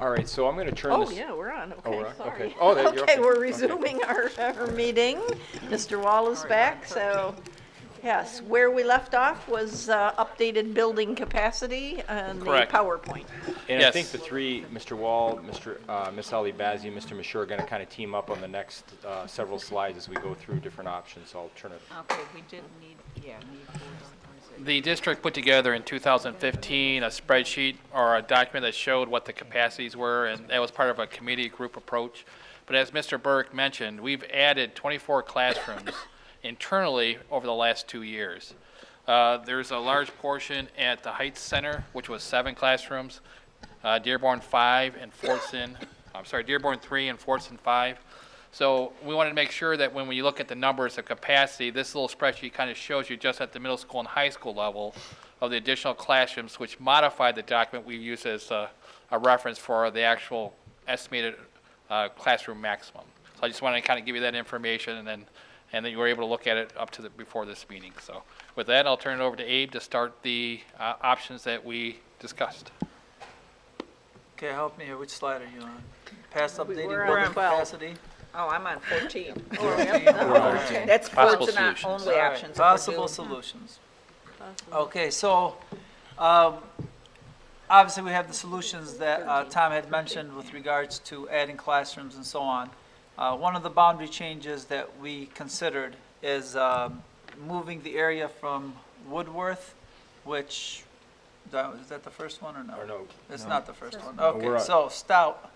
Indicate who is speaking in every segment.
Speaker 1: All right, so I'm going to turn
Speaker 2: Oh,
Speaker 1: this.
Speaker 2: yeah, we're on,
Speaker 1: Oh, we're
Speaker 2: okay,
Speaker 1: on?
Speaker 2: sorry.
Speaker 1: Okay. Oh, there- you're
Speaker 2: Okay,
Speaker 1: okay.
Speaker 2: we're
Speaker 1: Okay.
Speaker 2: resuming our, our meeting. Mr. Wall is back, so, yes, where we left off was uh, updated building capacity on the
Speaker 3: Correct.
Speaker 2: PowerPoint.
Speaker 1: And I
Speaker 3: Yes.
Speaker 1: think the three, Mr. Wall, Mr., uh, Ms. Ali Bazey, and Mr. Mashur are going to kind of team up on the next uh, several slides as we go through different options, so I'll turn it.
Speaker 4: Okay, we did need, yeah, need board authorization.
Speaker 3: The district put together in 2015 a spreadsheet or a document that showed what the capacities were, and that was part of a committee group approach. But as Mr. Burke mentioned, we've added 24 classrooms internally over the last two years. Uh, There's a large portion at the Heights Center, which was seven classrooms, uh, Dearborn 5 and Fortson, I'm sorry, Dearborn 3 and Fortson 5. So we wanted to make sure that when we look at the numbers of capacity, this little spreadsheet kind of shows you just at the middle school and high school level of the additional classrooms, which modified the document we use as a, a reference for the actual estimated uh, classroom maximum. So I just wanted to kind of give you that information and then, and then you were able to look at it up to the, before this meeting. So with that, I'll turn it over to Abe to start the uh, options that we discussed.
Speaker 5: Okay, help me here, which slide are you on? Past updating
Speaker 2: we're on
Speaker 5: building
Speaker 2: 12.
Speaker 5: capacity?
Speaker 4: Oh, I'm on 14.
Speaker 5: Okay.
Speaker 4: That's
Speaker 3: Possible
Speaker 4: boards and not
Speaker 3: solutions.
Speaker 4: only
Speaker 5: All right,
Speaker 4: options. if we're
Speaker 5: Possible
Speaker 4: doing-
Speaker 5: solutions. Okay, so, um, obviously, we have the solutions that uh, Tom had mentioned with regards to adding classrooms and so on. Uh, One of the boundary changes that we considered is um, moving the area from Woodworth, which, that- is that the first one or no?
Speaker 1: Or no,
Speaker 5: It's not the first one.
Speaker 1: we're
Speaker 5: Okay,
Speaker 1: up.
Speaker 5: so Stout,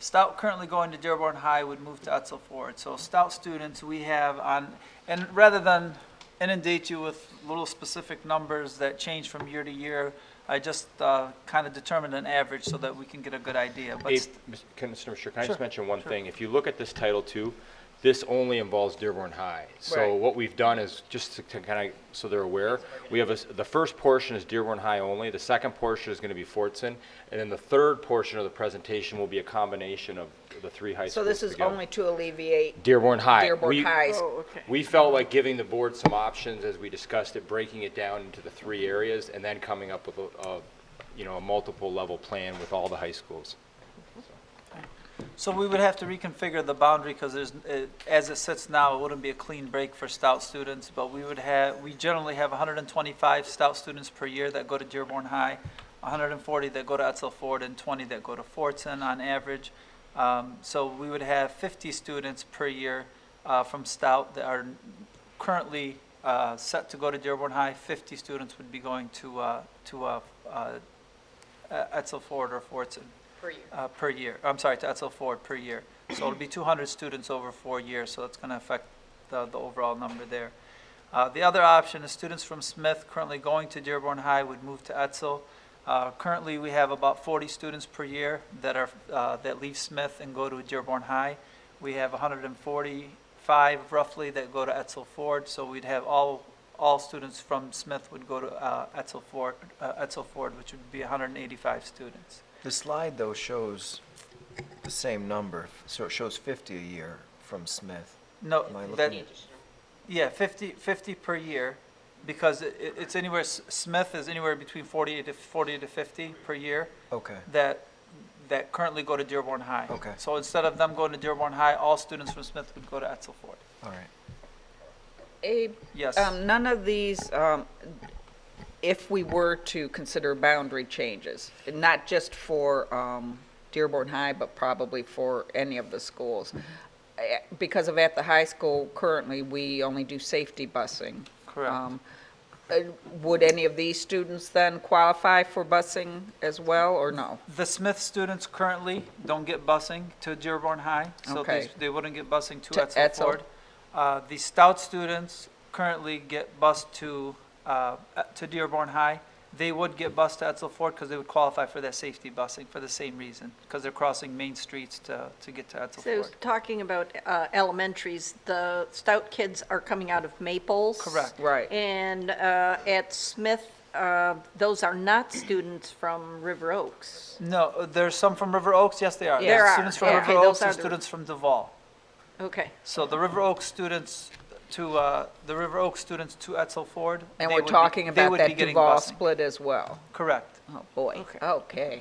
Speaker 5: Stout currently going to Dearborn High would move to Etzel Ford. So Stout students, we have on, and rather than inundate you with little specific numbers that change from year to year, I just kind of determined an average so that we can get a good idea. But
Speaker 1: Abe,
Speaker 5: st-
Speaker 1: Mr. Can Mr. Mashur, can I just mention one thing? If you look at this Title II, this only involves Dearborn High. So
Speaker 5: Right.
Speaker 1: what we've done is, just to kind of, so they're aware, we have, a s- the first portion is Dearborn High only, the second portion is going to be Fortson, and then the third portion of the presentation will be a combination of the three high schools
Speaker 4: So this is
Speaker 1: together.
Speaker 4: only to alleviate
Speaker 1: Dearborn High.
Speaker 4: Dearborn
Speaker 1: We-
Speaker 4: High's
Speaker 2: Oh, okay.
Speaker 1: We felt like giving the board some options as we discussed it, breaking it down into the three areas and then coming up with a, a, you know, a multiple level plan with all the high schools.
Speaker 5: So we would have to reconfigure the boundary because there's, it- as it sits now, it wouldn't be a clean break for Stout students, but we would have, we generally have 125 Stout students per year that go to Dearborn High, 140 that go to Etzel Ford, and 20 that go to Fortson on average. Um, So we would have 50 students per year uh, from Stout that are currently uh, set to go to Dearborn High. 50 students would be going to, uh, to uh, uh, Etzel Ford or Fortson
Speaker 4: per year.
Speaker 5: uh, per year, I'm sorry, to Etzel Ford per year. So it'll be 200 students over four years, so that's going to affect the, the overall number there. Uh, The other option is students from Smith currently going to Dearborn High would move to Etzel. Uh, Currently, we have about 40 students per year that are, uh, that leave Smith and go to Dearborn High. We have 145 roughly that go to Etzel Ford, so we'd have all, all students from Smith would go to uh, Etzel Ford, uh, Etzel Ford, which would be 185 students.
Speaker 6: The slide, though, shows the same number, so it shows 50 a year from Smith.
Speaker 5: No,
Speaker 6: Am I
Speaker 5: that,
Speaker 6: looking at-
Speaker 5: yeah, 50, 50 per year, because it, it- it's anywhere, S- Smith is anywhere between 40 to, 40 to 50 per year
Speaker 6: Okay,
Speaker 5: that, that currently go to Dearborn High.
Speaker 6: Okay.
Speaker 5: So instead of them going to Dearborn High, all students from Smith would go to Etzel Ford.
Speaker 6: all right.
Speaker 4: Abe,
Speaker 5: Yes.
Speaker 4: um, none of these, um, if we were to consider boundary changes, not just for um, Dearborn High, but probably for any of the schools, eh, because of at the high school, currently, we only do safety busing.
Speaker 5: Correct.
Speaker 4: Um, eh, Would any of these students then qualify for busing as well, or no?
Speaker 5: The Smith students currently don't get busing to Dearborn High, so
Speaker 4: Okay.
Speaker 5: they, they wouldn't get busing to
Speaker 4: To
Speaker 5: Etzel
Speaker 4: Etzel.
Speaker 5: Ford. Uh, the Stout students currently get bused to, uh, uh, to Dearborn High. They would get bused to Etzel Ford because they would qualify for that safety busing for the same reason, because they're crossing main streets to, to get to Etzel
Speaker 2: So
Speaker 5: Ford.
Speaker 2: talking about uh, elementaries, the Stout kids are coming out of Maples.
Speaker 5: Correct.
Speaker 4: Right.
Speaker 2: And uh, at Smith, uh, those are not students from River Oaks.
Speaker 5: No, uh, there's some from River Oaks, yes, they are.
Speaker 2: There
Speaker 5: There's
Speaker 2: are,
Speaker 5: Students from
Speaker 2: yeah.
Speaker 5: River
Speaker 2: Okay, those
Speaker 5: Oaks and
Speaker 2: are the-
Speaker 5: students from Duval.
Speaker 2: Okay.
Speaker 5: So the River Oaks students to, uh, the River Oaks students to Etzel Ford.
Speaker 4: And
Speaker 5: they
Speaker 4: we're
Speaker 5: would be-
Speaker 4: talking
Speaker 5: they
Speaker 4: about
Speaker 5: would be
Speaker 4: that
Speaker 5: getting
Speaker 4: Duval
Speaker 5: busing.
Speaker 4: split as well.
Speaker 5: Correct.
Speaker 4: Oh, boy.
Speaker 2: Okay.
Speaker 4: Okay.